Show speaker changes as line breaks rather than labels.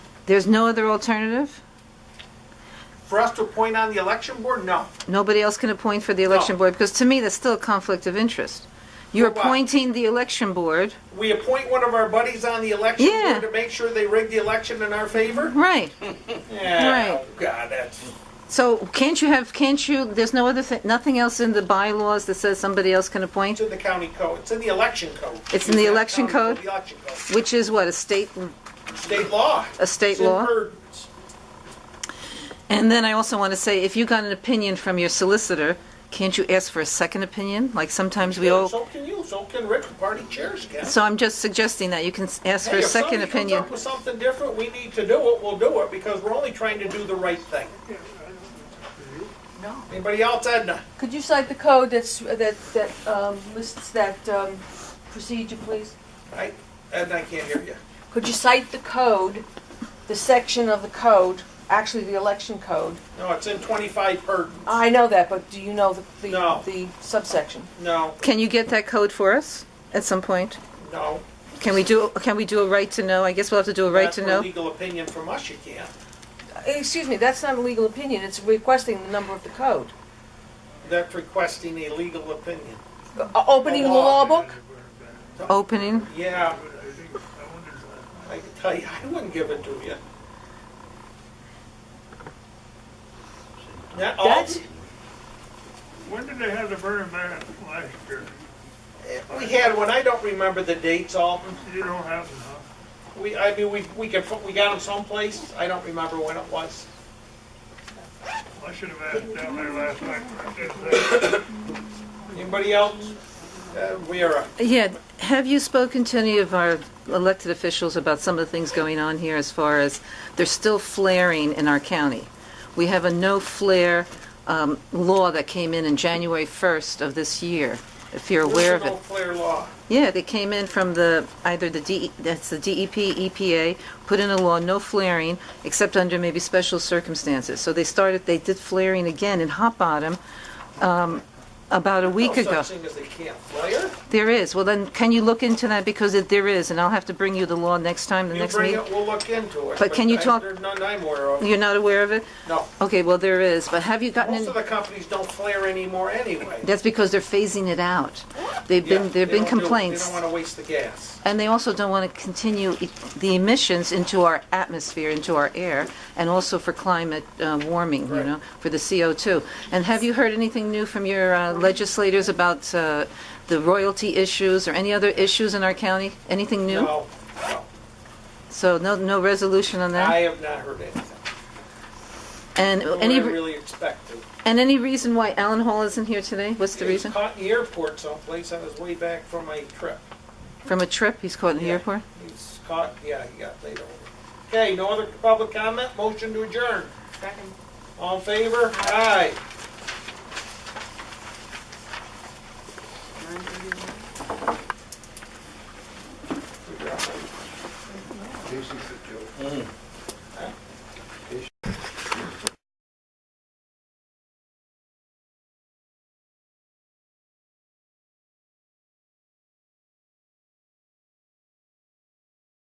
There's no other alternative?
For us to appoint on the election board, no.
Nobody else can appoint for the election
No.
board? Because to me, that's still a conflict of interest. You're
For what?
appointing the election board,
We appoint one of our buddies on the election
Yeah.
board to make sure they rig the election in our favor?
right?
Yeah,
Mm-hmm. Right.
oh, God, that's,
So can't you have, can't you, there's no other, thi- nothing else in the bylaws that says somebody else can appoint?
it's in the county code, it's in the election code.
It's in the
not
election
county
code?
The election code,
Which is what, a state,
state law.
a state
It's in
law?
her-
And then I also want to say, if you got an opinion from your solicitor, can't you ask for a second opinion? Like sometimes we all,
So can you, so can Rick, the party chairs can.
so I'm just suggesting that you can s- ask for
Hey,
a
if
second
somebody comes
opinion.
up with something different, we need to do it, we'll do it, because we're only trying to do the right thing. Anybody else, Edna?
Could you cite the code that's, that, that um, lists that um, procedure, please?
Right? Edna, I can't hear you.
Could you cite the code, the section of the code, actually the election code?
No, it's in twenty-five Purdon.
I know that, but do you know the,
No.
the, the subsection?
No,
Can you get that code for us at some point?
no.
Can we do, can we do a right to know? I guess we'll have to do a right
That's
to
for
know.
Legal opinion from us, you can't.
Uh, Excuse me, that's not a legal opinion, it's requesting the number of the code.
That's requesting a legal opinion.
Uh, Opening the law book?
Opening,
Yeah, I can tell you, I wouldn't give it to you. Not all-
That's,
When did they have the burning man last year?
We had one, I don't remember the dates, Alton.
You don't have enough.
We, I mean, we, we could, we got them someplace, I don't remember when it was.
I should have asked down there last night. I didn't ask.
Anybody else? Uh, we are,
yeah, have you spoken to any of our elected officials about some of the things going on here as far as they're still flaring in our county? We have a no flare um, law that came in in January 1st of this year, if you're aware of it.
personal clear law.
Yeah, they came in from the, either the D, E that's the DEP, EPA, put in a law, no flaring, except under maybe special circumstances. So they started, they did flaring again in Hot Bottom um, about a week
No
ago.
such thing as they can't flare.
There is, well then, can you look into that, because it- there is, and I'll have to bring you the law next time, the
You
next
bring
meeting?
it, we'll look into it.
But can you
I-
talk-
There's none I'm aware of,
You're not aware of it?
no.
Okay, well, there is, but have you gotten,
Most of
in-
the companies don't flare anymore anyway.
that's because they're phasing it out. They've
Yeah,
been, there've
they
been
don't do-
complaints.
They don't want to waste the gas.
And they also don't want to continue e- the emissions into our atmosphere, into our air, and also for climate uh, warming, you
Right.
know, for the CO2. And have you heard anything new from your uh, legislators about uh, the royalty issues or any other issues in our county? Anything new?
No, no,
So no, no resolution on
I
that?
have not heard anything.
And
Nor
any,
I really expect to.
and any reason why Alan Hall isn't here today? What's the
He was
reason?
Caught in the airport someplace on his way back from a trip.
From a trip? He's caught in the
Yeah.
airport?
He's caught, yeah, he got laid over. Okay, no other public comment, motion to adjourn. Second. All in favor? Aye.